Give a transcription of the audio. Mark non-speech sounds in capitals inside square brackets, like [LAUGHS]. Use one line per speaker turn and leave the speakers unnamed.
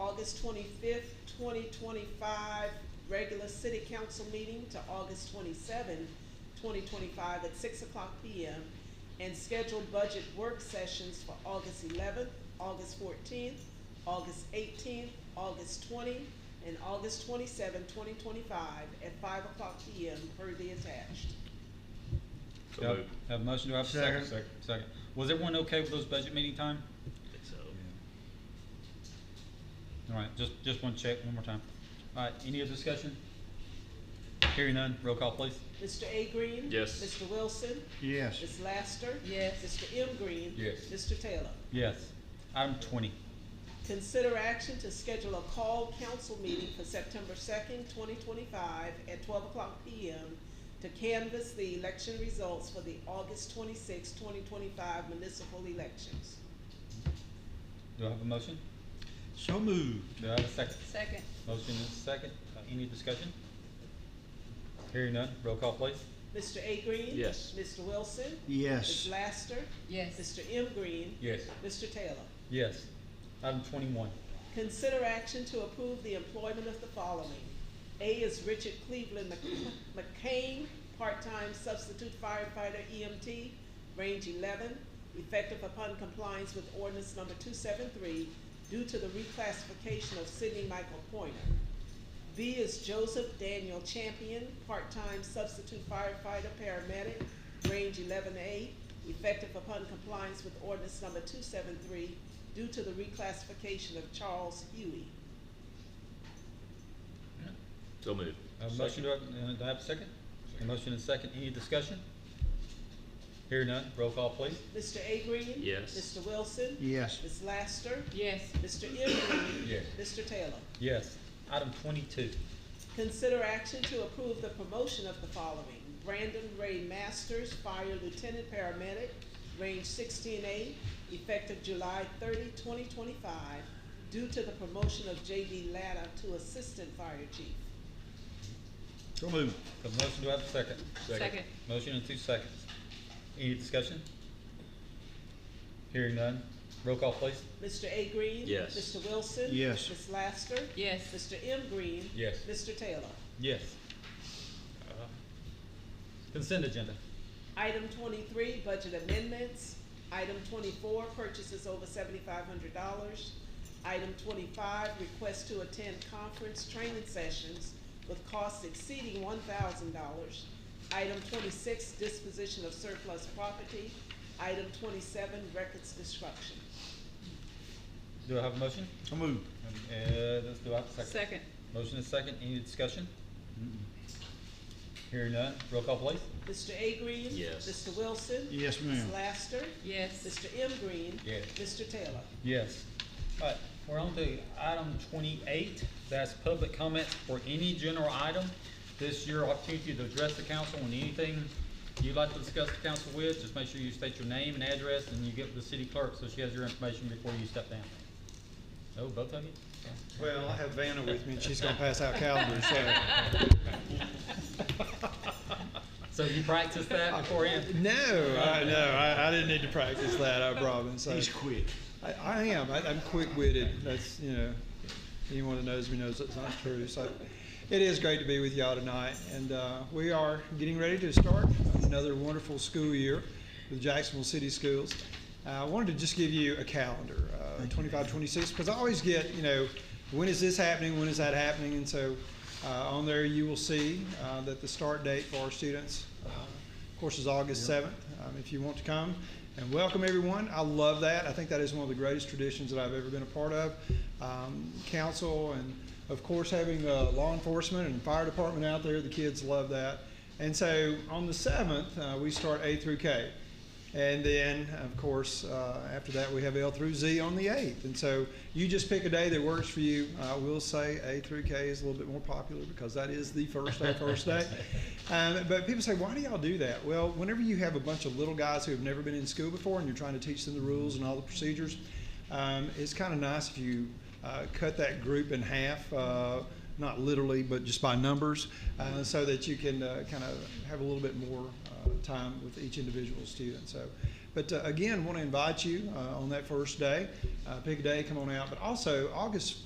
August twenty-fifth, twenty twenty-five, regular city council meeting to August twenty-seventh, twenty twenty-five at six o'clock P M. And schedule budget work sessions for August eleventh, August fourteenth, August eighteenth, August twenty, and August 27, 2025, at five o'clock P M per the attached.
So
Have
moved.
have a motion, do I have a second?
Second.
Second. Was everyone okay with those budget meeting time?
Think so.
All right, just, just one check, one more time. All right, any other discussion? Hearing none, roll call please.
Mr. A Green?
Yes.
Mr. Wilson?
Yes.
Ms. Laster?
Yes.
Mr. M Green?
Yes.
Mr. Taylor?
Yes. Item twenty,
Consider action to schedule a call council meeting for September second, twenty twenty-five at twelve o'clock P M to canvass the election results for the August twenty-sixth, twenty twenty-five municipal elections.
do I have a motion?
So moved.
Do I have a second?
Second.
Motion is second, Uh, any discussion? Hearing none, roll call please.
Mr. A Green?
Yes.
Mr. Wilson?
Yes.
Ms. Laster?
Yes.
Mr. M Green?
Yes.
Mr. Taylor?
Yes. Item twenty-one,
Consider action to approve the employment of the following. A is Richard Cleveland Mc- McCain, part-time substitute firefighter EMT, range eleven, effective upon compliance with ordinance number two seven three due to the reclassification of Sidney Michael Pointer. B is Joseph Daniel Champion, part-time substitute firefighter paramedic, range eleven A, effective upon compliance with ordinance number two seven three due to the reclassification of Charles Huey.
So moved.
I have a motion, do I, uh, do I have a second? A motion is second, any discussion? Hearing none, roll call please.
Mr. A Green?
Yes.
Mr. Wilson?
Yes.
Ms. Laster?
Yes.
Mr. M Green?
Yes.
Mr. Taylor?
Yes. Item twenty-two,
Consider action to approve the promotion of the following. Brandon Ray Masters, Fire Lieutenant Paramedic, range sixteen A, effective July 30, 2025, due to the promotion of J.D. Latta to Assistant Fire Chief.
So moved.
a motion, do I have a second?
Second.
Motion in two seconds. Any discussion? Hearing none, roll call please.
Mr. A Green?
Yes.
Mr. Wilson?
Yes.
Ms. Laster?
Yes.
Mr. M Green?
Yes.
Mr. Taylor?
Yes. Uh, Consent agenda.
Item twenty-three, budget amendments. Item twenty-four, purchases over seventy-five hundred dollars. Item twenty-five, request to attend conference training sessions with costs exceeding one thousand dollars. Item twenty-six, disposition of surplus property. Item twenty-seven, records destruction.
Do I have a motion?
So moved.
Um, Uh, let's do I have a second?
Second.
Motion is second, any discussion? Hearing none, roll call please.
Mr. A Green?
Yes.
Mr. Wilson?
Yes,
Ms.
ma'am.
Laster?
Yes.
Mr. M Green?
Yes.
Mr. Taylor?
Yes. All right, we're on to item twenty-eight, that's public comments for any general item. This is your opportunity to address the council on anything you'd like to discuss the council with, just make sure you state your name and address, and you get the city clerk, so she has your information before you step down. Oh, both of you?
Well, I have Vanna with me, and she's gonna pass out calendars, so.
So you practice that beforehand?
No, [LAUGHS] I, no, I, I didn't need to practice that, I promise. I,
He's quick.
I, I am, I, I'm quick-witted, that's, you know, anyone that knows me knows that's not true, so. It is great to be with y'all tonight, and, uh, we are getting ready to start another wonderful school year with Jacksonville City Schools. Uh, I wanted to just give you a calendar, uh, twenty-five, twenty-six, because I always get, you know, when is this happening, when is that happening, and so, uh, on there you will see, uh, that the start date for our students, uh, of course, is August 7th, um, if you want to come. And welcome, everyone. I love that. I think that is one of the greatest traditions that I've ever been a part of. Um, Council and, of course, having uh, law enforcement and fire department out there, the kids love that. And so on the 7th, uh, we start A through K. And then, of course, uh, after that, we have L through Z on the 8th. And so you just pick a day that works for you. I will say A through K is a little bit more popular because that is the first day, first day. Um, but people say, why do y'all do that? Well, whenever you have a bunch of little guys who have never been in school before and you're trying to teach them the rules and all the procedures, um, it's kind of nice if you uh, cut that group in half. Uh, not literally, but just by numbers, uh, so that you can uh, kind of have a little bit more uh, time with each individual student. So, but uh, again, want to invite you uh, on that first day. Uh, pick a day, come on out. But also, August